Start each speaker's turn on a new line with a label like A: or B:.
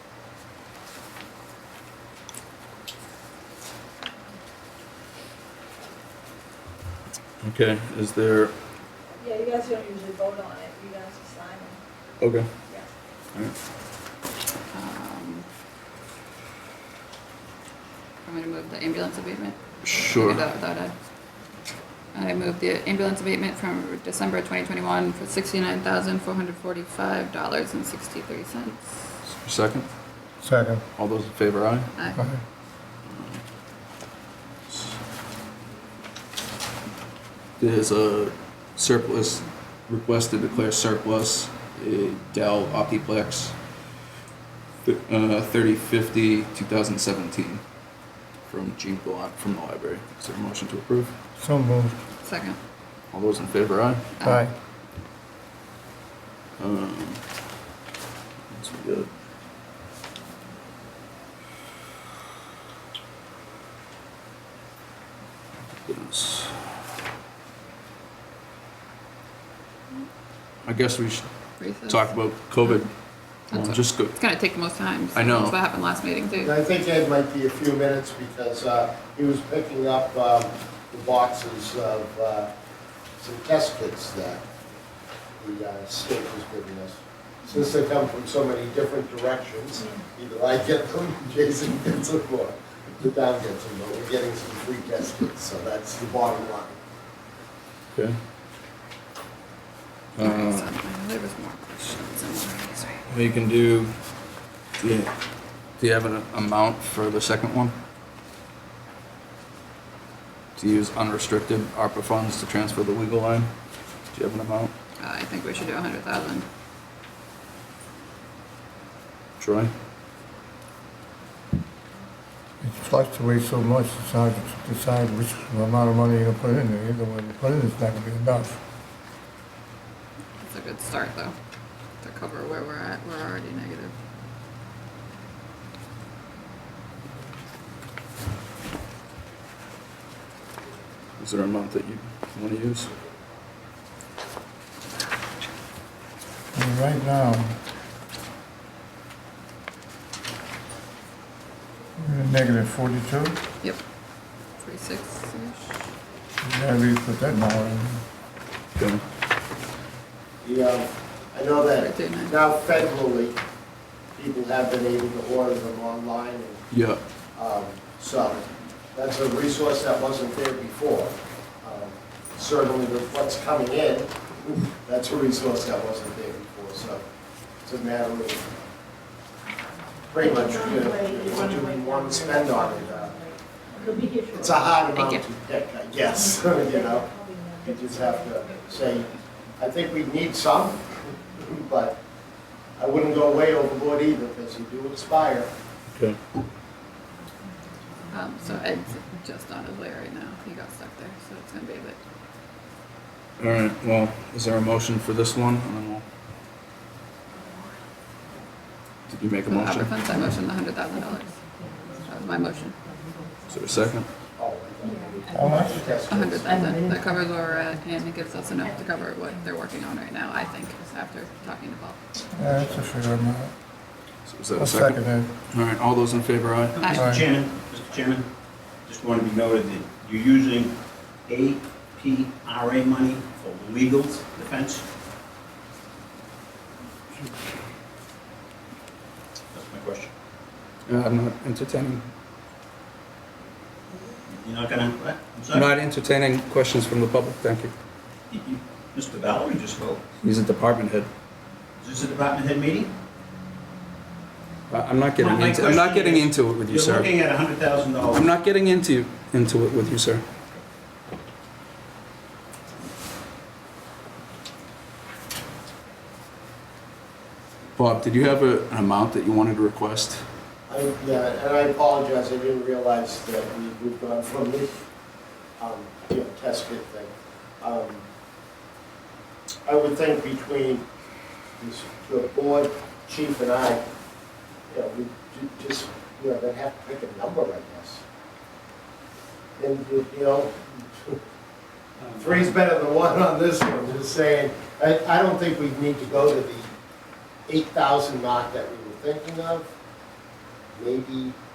A: Okay, is there,
B: Yeah, you guys don't usually vote on it, you guys just sign it,
A: okay,
B: yeah.
A: all right.
C: Um, I'm gonna move the ambulance abatement.
A: Sure.
C: Do that without a- I move the ambulance abatement from December 2021 for $69,445.63.
A: Second,
D: Second.
A: all those in favor, aye?
C: Aye.
D: Aye.
A: There's a surplus, request to declare surplus, a Dell Optiplex, th- uh, 3050, 2017, from Gene Blunt from the library. Is there a motion to approve?
D: So moved.
C: Second. Uh,
A: All those in favor, aye?
D: Aye.
A: Um, that's good. Yes. I guess we should
C: Recess.
A: talk about COVID.
C: That's
A: Well,
C: it.
A: just go,
C: It's gonna take the most time. so
A: I know.
C: That's what happened last meeting
E: And
C: too.
E: I think Ed might be a few minutes because uh, he was picking up um, the boxes of uh, some test kits that the uh, state was giving us. Since they come from so many different directions, either I get them, Jason gets them, or the town gets them, but we're getting some free test kits, so that's the bottom line.
A: okay?
C: Okay,
A: Uh,
C: so There was more questions. and more things, right?
A: we can do, yeah, do you have an amount for the second one? To use unrestricted ARPA funds to transfer the legal line? Do you have an amount?
C: Uh, I think we should do 100,000.
A: Troy?
D: It fluctuates so much, it's hard to decide which amount of money you're gonna put in there. Either one you put in is not gonna be enough.
C: It's a good start though, to cover where we're at. We're already negative.
A: Is there an amount that you want to use?
D: I mean, right now, we're at negative forty-two.
C: Yep. 46-ish.
D: You gotta really put that number in.
A: Okay.
E: The, um, I know that
C: Right, didn't I?
E: now federally, people have been able to order them online and
A: Yeah,
E: Um, So that's a resource that wasn't there before. Um, Certainly with what's coming in, that's a resource that wasn't there before, so it's a matter of pretty much, you know, what do we want to spend on it? Uh,
B: It'll be here shortly.
E: It's a hard
C: Thank
E: amount to pick, I guess, you know? You just have to say, I think we need some, but I wouldn't go way overboard either because you do expire.
A: okay.
C: Um, so Ed's just on his way right now. He got stuck there, so it's gonna be a bit.
A: All right, well, is there a motion for this one? And then we'll- Did you make a
C: For the
A: motion?
C: ARPA funds, I motioned the hundred thousand dollars. That was my motion.
A: Is there a second?
E: Oh,
D: How much?
E: That's
C: A hundred thousand. That covers where we're at and it gives us enough to cover what they're working on right now, I think, after talking to Paul.
D: Yeah, That's a fair amount.
A: So Is that
D: I'll
A: a second?
D: second it.
A: All right, all those in favor, aye?
C: Aye.
D: Aye.
F: Mr. Chairman, Mr. Chairman, just want to be noted that you're using APRA money for legal defense. That's my question.
A: Uh, I'm not entertaining,
F: You're not gonna, what? I'm
A: I'm
F: sorry.
A: not entertaining questions from the public, thank you.
F: You- you- Mr. Valerie just spoke.
A: He's a department head.
F: Is this a department head meeting?
A: I- Uh, I'm not getting
F: My- my
A: into, I'm not
F: question
A: getting
F: is,
A: into it with you,
F: You're
A: sir.
F: looking at hundred thousand dollars.
A: I'm not getting into, into it with you, sir. Bob, did you have a- an amount that you wanted to request?
E: I, yeah, and I apologize, I didn't realize that we moved on from the, um, you know, test kit thing. Um, I would think between this- the board chief and I, you know, we ju- just, you know, they'd have to pick a number, I guess. And, you you know,
F: Uh,
E: three's better than one on this one, just saying. I, I don't think we need to go to the eight thousand mark that we were thinking of maybe